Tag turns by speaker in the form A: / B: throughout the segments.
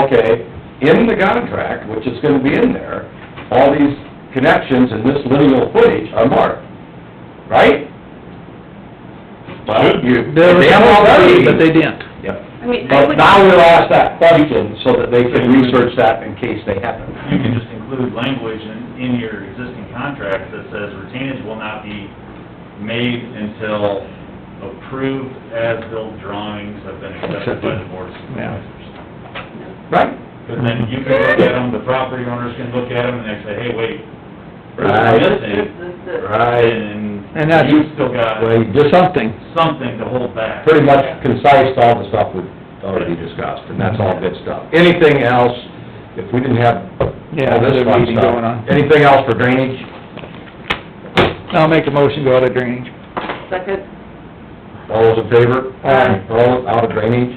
A: okay, in the contract, which is gonna be in there, all these connections and this lineal footage are marked, right? Well, you,
B: They were
A: they have
B: supposed to,
A: already.
B: but they didn't.
A: Yep.
C: I mean, I
A: But
C: would,
A: now we'll ask that question so that they can research that in case they happen.
D: You can just include language in, in your existing contract that says retainage will not be made until approved as-built drawings have been accepted by the board of supervisors.
A: Right?
D: But then you can look at them, the property owners can look at them, and they say, hey, wait,
A: Right.
D: there's
C: this,
D: missing.
C: this, this.
A: Right.
B: And
D: And
B: that's-
D: you've still got
A: Well, you just
B: Something.
D: something to hold back.
A: pretty much concise to all the stuff we've already discussed, and that's all good stuff. Anything else, if we didn't have
B: Yeah,
A: all this
B: there's a
A: fun
B: meeting
A: stuff,
B: going on.
A: Anything else for drainage?
B: I'll make a motion, go out of drainage.
C: Second,
A: All those in favor?
B: Aye.
A: All out of drainage?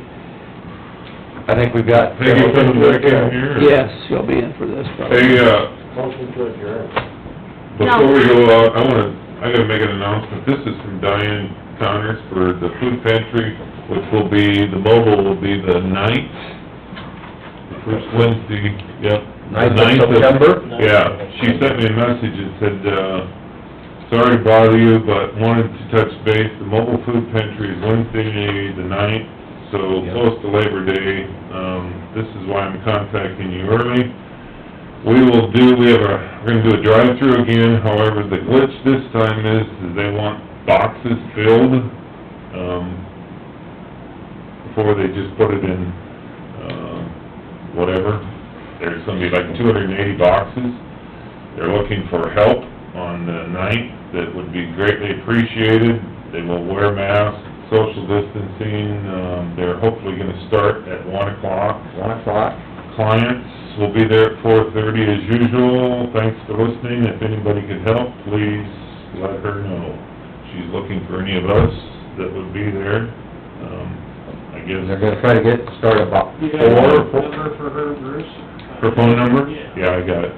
A: I think we've got...
E: Peggy, come to it down here. or-
B: Yes, you'll be in for this probably.
E: Hey, uh, before we go out, I wanna, I gotta make an announcement. This is from Diane Connors for the food pantry, which will be, the mobile will be the ninth, the first Wednesday, yep. the
A: Ninth of September?
E: Yeah, she sent me a message and said, uh, sorry to bother you, but wanted to touch base. The mobile food pantry is Wednesday, the ninth, so
A: Yep.
E: close to Labor Day. Um, this is why I'm contacting you early. We will do, we have a, we're gonna do a drive-through again, however, the glitch this time is, is they want boxes filled, um, before they just put it in, um, whatever. There's gonna be like two hundred and eighty boxes. They're looking for help on the ninth, that would be greatly appreciated. They will wear masks, social distancing, um, they're hopefully gonna start at one o'clock.
A: One o'clock?
E: Clients will be there at four thirty as usual. Thanks for listening. If anybody could help, please let her know. She's looking for any of us that would be there. Um, I guess...
A: They're gonna try to get started about
F: You got a
A: four, four-
F: number for her, Bruce?
E: Her phone number?
F: Yeah.
E: Yeah, I got it.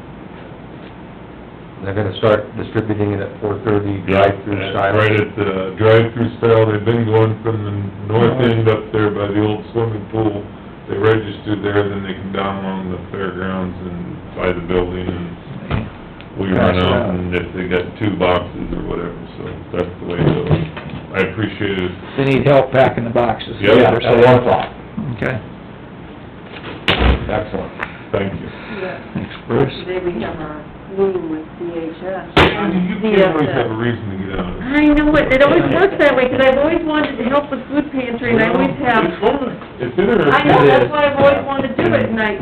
A: they're gonna start distributing it at four-thirty, drive-through
E: Yeah,
A: style.
E: Right at the drive-through style, they've been going from the north end up there by the old swimming pool. They registered there, then they come down along the fairgrounds and by the building and we run out and if they got two boxes or whatever, so that's the way it goes. I appreciate it.
B: They need help packing the boxes.
E: Yeah.
A: Yeah, at one o'clock.
B: Okay,
A: Excellent.
E: Thank you.
B: thanks Bruce.
C: today we have our meeting with DHS.
E: You kids always have a reason to get out of it.
C: I know it, it always works that way, 'cause I've always wanted to help with food pantry, and I always have.
E: It's fun. It's interesting.
C: I know, that's why I've always wanted to do it, and I,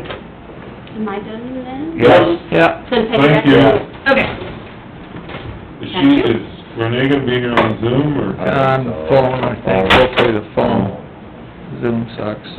C: am I done then?
E: Yes.
B: Yeah,
C: Then take
E: Thank
C: that.
E: you.
C: Okay.
E: Is she, is Renee gonna be here on Zoom or?
B: on phone, I think, hopefully the phone. Zoom sucks.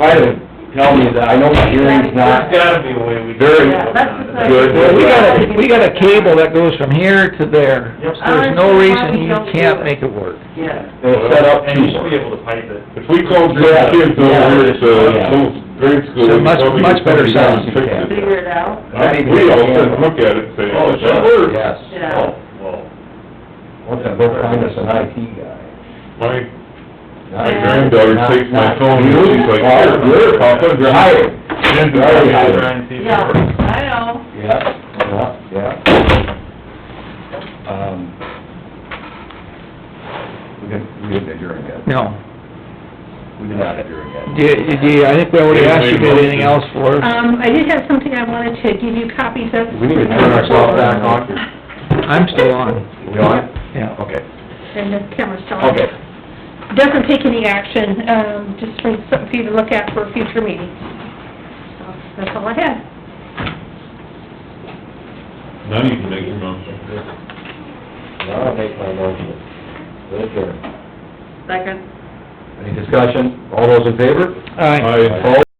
A: Try to tell me that, I know my hearing's not...
D: There's gotta be a way we can...
A: Very
D: do it.
C: that's just like-
A: good.
B: Well, we got a, we got a cable that goes from here to there.
D: Yep.
B: There's no reason you can't make it work.
C: Yeah.
A: It's set up...
D: And you should be able to pipe it.
E: If we called your kids over at the old grade school,
B: So
E: they'd
B: much-
E: probably
B: much better
E: figure out
B: sound.
E: and fix
C: Figure
E: it.
C: it out.
E: I think We all sit and look at it and say,
A: Oh,
E: oh, that works.
A: Yes.
C: Yeah.
D: Well,
A: Once I go find us an IT guy.
E: My, my granddaughter takes my
A: Not-
E: phone and she's like,
A: not
E: here,
A: you.
E: here,
A: Hire.
E: Papa, drive.
A: Hire.
E: And drive.
D: try and see if it
C: Yeah,
D: works.
C: I know.
A: Yeah, yeah, yeah. Um, We didn't, we didn't adjourn yet.
B: No.
A: We did not adjourn yet.
B: Do, you- do, you- I think we already asked you if you had anything else for us.
G: Um, I did have something I wanted to give you copies of.
A: We need to turn ourselves back on.
B: I'm still on,
A: We on?
B: yeah.
A: Okay,
G: And the camera's still on.
A: okay.
G: Doesn't take any action, um, just for something for you to look at for future meetings. So, that's all I had.
E: Now you can make your motion.
A: Now I'll make my motion. Good adjourn.
C: Second.
A: Any discussion? All those in favor?
B: All right.
E: Aye.
A: Opposed?